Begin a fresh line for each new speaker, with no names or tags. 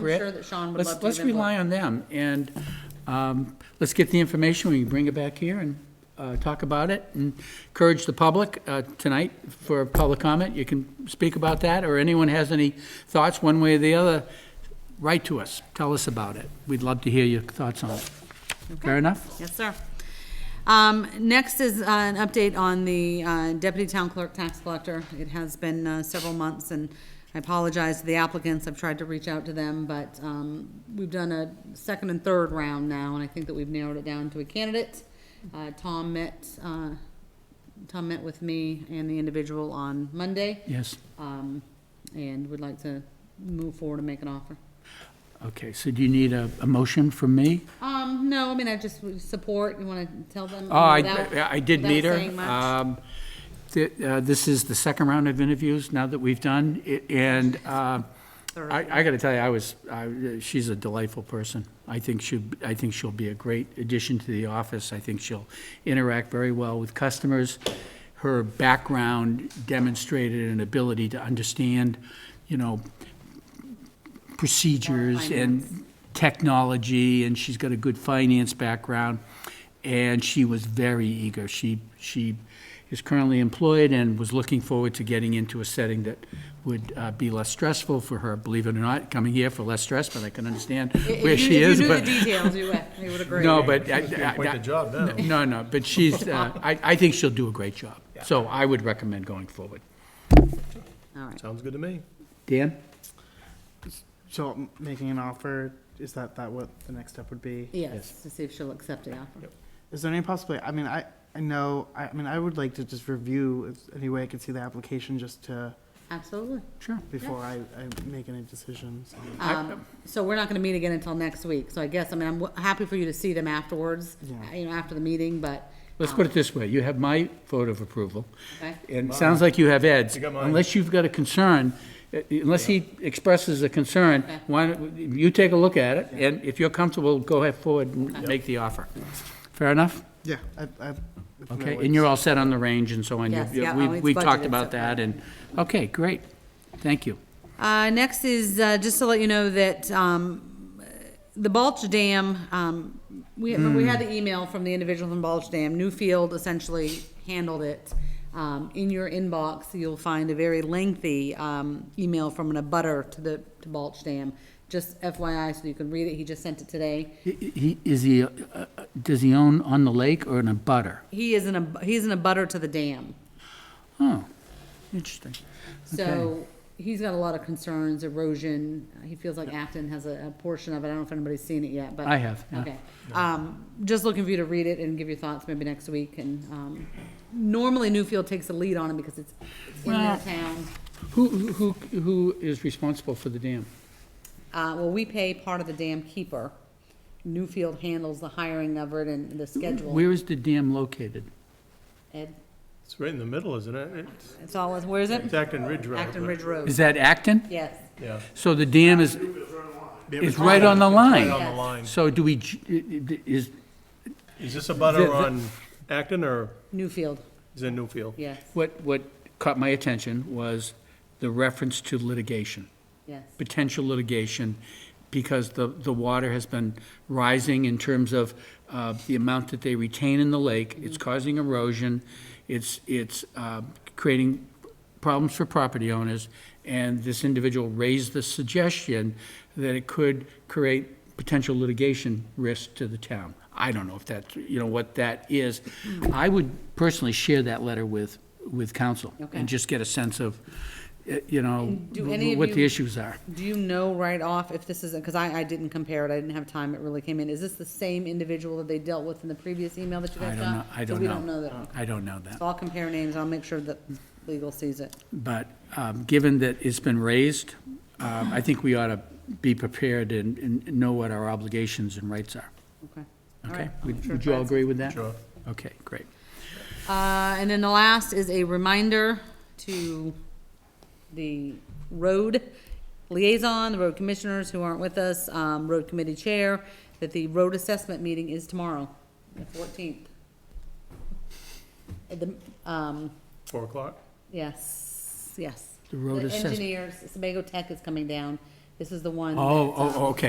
Brett.
sure that Sean would
let's-
love to
Let's
give input.
rely on them, and um, let's get the information, we can bring it back here and uh, talk about it, and encourage the public uh, tonight for public comment, you can speak about that, or anyone has any thoughts, one way or the other, write to us, tell us about it, we'd love to hear your thoughts on it. Fair enough?
Yes, sir. Um, Next is uh, an update on the uh, deputy town clerk tax collector. It has been uh, several months, and I apologize to the applicants. I've tried to reach out to them, but um, we've done a second and third round now, and I think that we've narrowed it down to a candidate. Uh, Tom met, uh, Tom met with me and the individual on Monday,
Yes,
um, and would like to move forward and make an offer.
okay, so do you need a, a motion from me?
Um, no, I mean, I just would support, you want to tell them?
Oh, I,
without-
I did meet
without
her.
saying much?
Um, th- uh, This is the second round of interviews now that we've done, i- and uh,
Third.
I, I gotta tell you, I was, I- she's a delightful person. I think she, I think she'll be a great addition to the office. I think she'll interact very well with customers. Her background demonstrated an ability to understand, you know, procedures and technology, and she's got a good finance background. And she was very eager. She, she is currently employed and was looking forward to getting into a setting that would uh, be less stressful for her, believe it or not, coming here for less stress, but I can understand
If
where
you-
she
if
is.
you knew the
but
details, you would, you would agree.
No, but. I-
She's doing quite the
I-
job now.
No, no, but she's, uh, I, I think she'll do a great job. So I would recommend going forward.
All right.
Sounds good to me.
Dan?
So m- making an offer, is that, that what the next step would be?
Yes, to see if she'll accept the offer.
Is there any possibility, I mean, I, I know, I, I mean, I would like to just review if any way I could see the application just to,
Absolutely.
Sure.
before I, I make any decisions.
Um, So we're not going to meet again until next week, so I guess, I mean, I'm w- happy for you to see them afterwards,
Yeah.
you know, after the meeting, but.
Let's
um,
put it this way, you have my vote of approval.
okay.
And it sounds like you have Ed's.
You got mine.
Unless you've got a concern, uh, unless he expresses a concern,
Okay.
why, don't- you take a look at it, and if you're comfortable, go ahead forward and make the offer. Fair enough?
Yeah, I, I. if that
Okay,
works.
and you're all set on the range and so on? You-
Yes,
you-
yeah,
we-
well, it's
We talked
budgeted,
about
so-
that, and, okay, great. Thank you.
Uh, next is, uh, just to let you know that, um, the Balch Dam, um, we, we had the email from the individual from Balch Dam, Newfield essentially handled it. Um, in your inbox, you'll find a very lengthy, um, email from an abutter to the, to Balch Dam. Just FYI, so you can read it, he just sent it today.
He- He, is he, uh, uh, does he own on the lake or in a butter?
He is in a, he's in a butter to the dam.
Oh, interesting.
So he's got a lot of concerns, erosion. He feels like Acton has a, a portion of it. I don't know if anybody's seen it yet, but.
I have, yeah.
Okay. Um, just looking for you to read it and give your thoughts maybe next week. And, um, normally Newfield takes the lead on it because it's it's in their
Well-
town.
Who, who, who is responsible for the dam?
Uh, well, we pay part of the dam keeper. Newfield handles the hiring of it and the schedule.
Where is the dam located?
Ed,
It's right in the middle, isn't it? It's-
it's all, where is
It's
it?
Acton Ridge Road.
Acton
but-
Ridge Road.
Is that Acton?
Yes.
Yeah.
So the dam is, it's right on the
Right
line.
on the line.
So do we, j- i- i- is,
Is this a
The-
butter
the-
on Acton or
Newfield,
is it Newfield?
yes,
what, what caught my attention was the reference to litigation,
yes.
potential litigation, because the, the water has been rising in terms of uh, the amount that they retain in the lake. It's
Mm-hmm.
causing erosion, it's, it's uh, creating problems for property owners, and this individual raised the suggestion that it could create potential litigation risk to the town. I don't know if that's, you know, what that is.
Mm.
I would personally share that letter with, with council
Okay.
and just get a sense of, eh, you know,
And do any of
what the
you-
issues are.
Do you know right off if this is, because I, I didn't compare it, I didn't have time, it really came in. Is this the same individual that they dealt with in the previous email that you
I
guys
don't
got?
know, I
So
don't know.
we don't know that.
I don't know that.
So I'll compare names, I'll make sure that legal sees it.
But um, given that it's been raised, um, I think we ought to be prepared and and know what our obligations and rights are.
Okay. All
Okay?
right, I'll make
Would
sure
would
it
you all
finds-
agree with that?
Sure.
Okay, great.
Uh, and then the last is a reminder to the road liaison, the road commissioners who aren't with us, um, road committee chair, that the road assessment meeting is tomorrow, the fourteenth. At the, um,
Four o'clock?
Yes, yes.
The road assessment.
engineers, Sebago Tech is coming down This is the one.
Oh,
that's, um,
oh, okay.